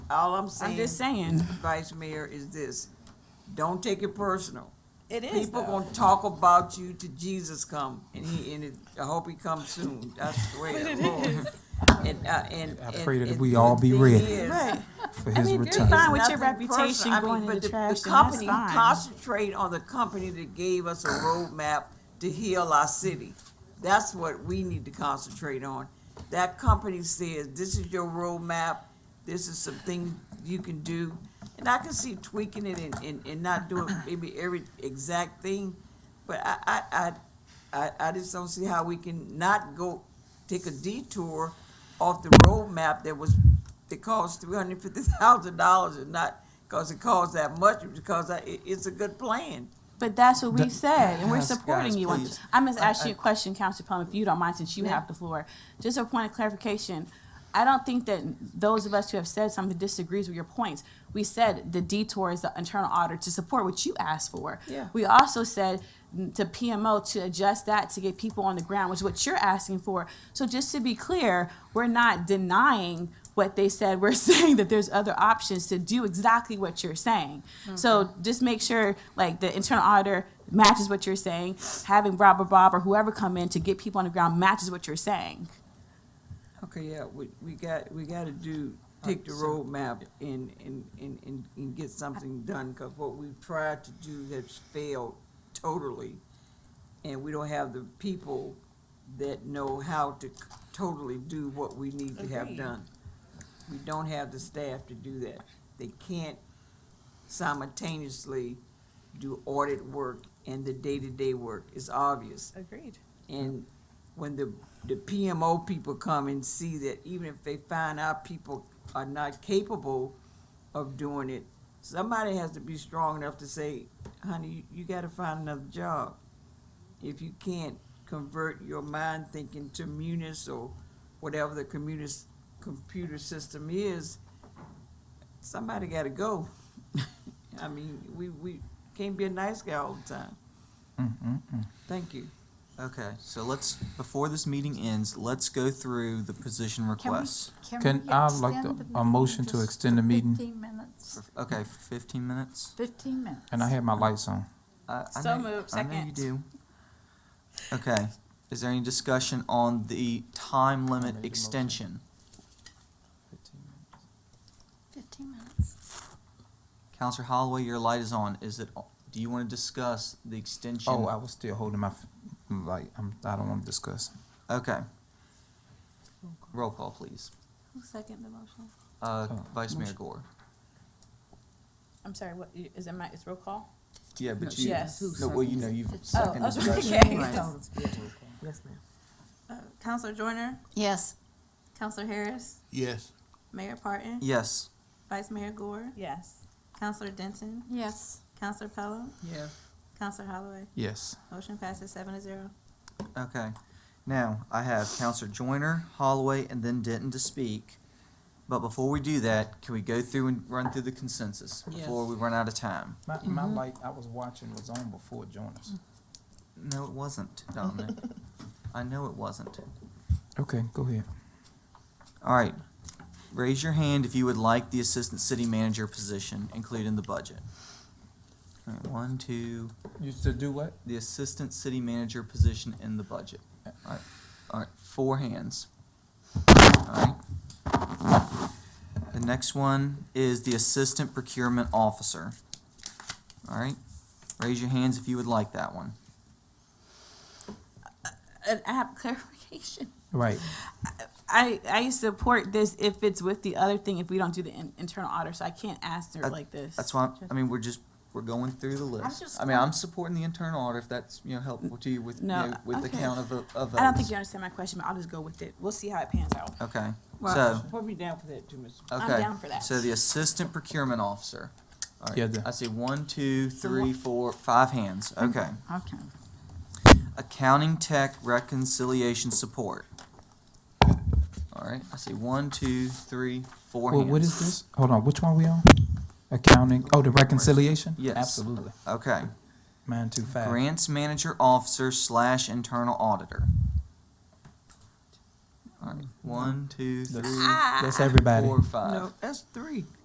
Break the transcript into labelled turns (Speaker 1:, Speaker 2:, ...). Speaker 1: All I'm
Speaker 2: I'm just
Speaker 1: saying,
Speaker 2: saying,
Speaker 1: Vice Mayor, is this, don't take it personal.
Speaker 2: it is
Speaker 1: People
Speaker 2: though.
Speaker 1: gonna talk about you till Jesus come, and he, and it, I hope he comes soon, I swear. Lord. And, uh, and.
Speaker 3: I
Speaker 1: and-
Speaker 3: pray that
Speaker 1: and
Speaker 3: we all
Speaker 1: the
Speaker 3: be
Speaker 1: thing
Speaker 3: ready.
Speaker 1: is,
Speaker 2: Right.
Speaker 3: for
Speaker 2: I
Speaker 3: his
Speaker 2: mean, if you're
Speaker 3: return.
Speaker 2: fine with your
Speaker 1: Nothing personal.
Speaker 2: reputation
Speaker 1: I mean,
Speaker 2: going in
Speaker 1: but
Speaker 2: the trash,
Speaker 1: The
Speaker 2: then that's
Speaker 1: company,
Speaker 2: fine.
Speaker 1: concentrate on the company that gave us a roadmap to heal our city. That's what we need to concentrate on. That company says, this is your roadmap, this is something you can do. And I can see tweaking it and, and, and not doing maybe every exact thing, but I, I, I, I, I just don't see how we can not go take a detour off the roadmap that was, that cost three hundred fifty thousand dollars and not, cause it costs that much, because I, it, it's a good plan.
Speaker 2: But that's what we
Speaker 3: Th-
Speaker 2: said, and we're
Speaker 3: Yes,
Speaker 2: supporting
Speaker 3: guys,
Speaker 2: you on
Speaker 3: please.
Speaker 2: this. I'm gonna ask
Speaker 1: I-
Speaker 2: you a question, Council Plum, if you don't mind, since you
Speaker 1: Yeah.
Speaker 2: have the floor. Just a point of clarification. I don't think that those of us who have said something disagrees with your points. We said the detour is the internal audit to support what you asked for.
Speaker 1: Yeah.
Speaker 2: We also said mm, to PMO to adjust that to get people on the ground, which is what you're asking for. So just to be clear, we're not denying what they said. We're saying that there's other options to do exactly what you're saying. So just make sure like the internal auditor matches what you're saying. Having Rob or Bob or whoever come in to get people on the ground matches what you're saying.
Speaker 1: Okay, yeah, we, we got, we gotta do, take the roadmap and, and, and, and, and get something done, cause what we've tried to do has failed totally. And we don't have the people that know how to totally do what we need to have
Speaker 2: Agreed.
Speaker 1: done. We don't have the staff to do that. They can't simultaneously do audit work and the day-to-day work. It's obvious.
Speaker 2: Agreed.
Speaker 1: And when the, the PMO people come and see that even if they find out people are not capable of doing it, somebody has to be strong enough to say, honey, you, you gotta find another job. If you can't convert your mind thinking to munis or whatever the communis, computer system is, somebody gotta go. I mean, we, we can't be a nice guy all the time.
Speaker 3: Mm-hmm.
Speaker 1: Thank you.
Speaker 4: Okay, so let's, before this meeting ends, let's go through the position requests.
Speaker 3: Can
Speaker 5: we
Speaker 3: I like
Speaker 5: extend
Speaker 3: the-
Speaker 5: the
Speaker 3: a
Speaker 5: meeting
Speaker 3: motion to
Speaker 5: just
Speaker 3: extend the meeting?
Speaker 5: Fifteen minutes,
Speaker 4: Okay, fifteen minutes?
Speaker 5: fifteen minutes.
Speaker 3: And I had my lights on.
Speaker 4: I- I
Speaker 2: So
Speaker 4: know-
Speaker 2: moved,
Speaker 4: I know you
Speaker 2: second.
Speaker 4: do. Okay, is there any discussion on the time
Speaker 3: made the
Speaker 4: limit
Speaker 3: motion.
Speaker 4: extension?
Speaker 5: Fifteen minutes.
Speaker 4: Counselor Holloway, your light is on. Is it, do you want to discuss the extension?
Speaker 3: Oh, I was still holding my f- light. I'm, I don't want to discuss.
Speaker 4: Okay. Roll call, please.
Speaker 2: Second the motion.
Speaker 4: Uh,
Speaker 3: Oh,
Speaker 4: Vice Mayor
Speaker 3: motion.
Speaker 4: Gore.
Speaker 2: I'm sorry, what, is it my, it's roll call?
Speaker 4: Yeah, but
Speaker 2: you- Yes.
Speaker 4: No, well, you know, you've
Speaker 2: Oh,
Speaker 4: seconded.
Speaker 2: okay. uh,
Speaker 4: that.
Speaker 1: Yes, ma'am.
Speaker 6: Counselor Joyner,
Speaker 5: Yes.
Speaker 6: Counselor Harris,
Speaker 7: Yes.
Speaker 6: Mayor Parton,
Speaker 4: Yes.
Speaker 6: Vice Mayor Gore,
Speaker 2: Yes.
Speaker 6: Counselor Denton,
Speaker 5: Yes.
Speaker 6: Counselor Pelham,
Speaker 1: Yeah.
Speaker 6: Counselor Holloway.
Speaker 3: Yes.
Speaker 6: Motion passes seven to zero.
Speaker 4: Okay. Now, I have Counselor Joyner, Holloway, and then Denton to speak. But before we do that, can we go through and run through the consensus before
Speaker 1: Yes.
Speaker 4: we run out of time?
Speaker 3: My, my
Speaker 2: Mm-hmm.
Speaker 3: light I was watching was on before Jonas.
Speaker 4: No, it wasn't, Dominic. I know it wasn't.
Speaker 3: Okay, go ahead.
Speaker 4: All right. Raise your hand if you would like the Assistant City Manager position, including the budget. All right, one, two,
Speaker 3: You to do what?
Speaker 4: the Assistant City Manager position in the budget. All right, all right, four hands. All right. The next one is the Assistant Procurement Officer. All right, raise your hands if you would like that one.
Speaker 2: And I have clarification.
Speaker 3: Right.
Speaker 2: I, I support this if it's with the other thing, if we don't do the in- internal audit, so I can't ask her
Speaker 4: Uh,
Speaker 2: like this.
Speaker 4: That's why, I mean, we're just, we're going through the list.
Speaker 5: just
Speaker 4: I mean, I'm supporting the internal audit if that's, you know, helpful to you with, you
Speaker 2: No,
Speaker 4: know, with the
Speaker 2: okay.
Speaker 4: count of, vo- of votes.
Speaker 2: I don't think you understand my question, but I'll just go with it. We'll see how it pans out.
Speaker 4: Okay,
Speaker 1: Well,
Speaker 4: so,
Speaker 1: put me down for that too, Mr.
Speaker 4: okay.
Speaker 2: I'm down for that.
Speaker 4: So the Assistant Procurement Officer. All right,
Speaker 3: Yeah, the-
Speaker 4: I see one, two, three, four, five hands,
Speaker 2: Mm-hmm.
Speaker 4: okay.
Speaker 2: Okay.
Speaker 4: Accounting Tech Reconciliation Support. All right, I see one, two, three, four
Speaker 3: Well,
Speaker 4: hands.
Speaker 3: what is this? Hold on. Which one we on? Accounting. Oh, the reconciliation.
Speaker 4: Yes.
Speaker 3: Absolutely.
Speaker 4: Okay,
Speaker 3: Mine too fast.
Speaker 4: Grants Manager Officer slash Internal Auditor. All right, one, two,
Speaker 3: That's-
Speaker 4: three,
Speaker 2: Ah.
Speaker 3: That's everybody.
Speaker 4: four, five.
Speaker 1: No, that's three.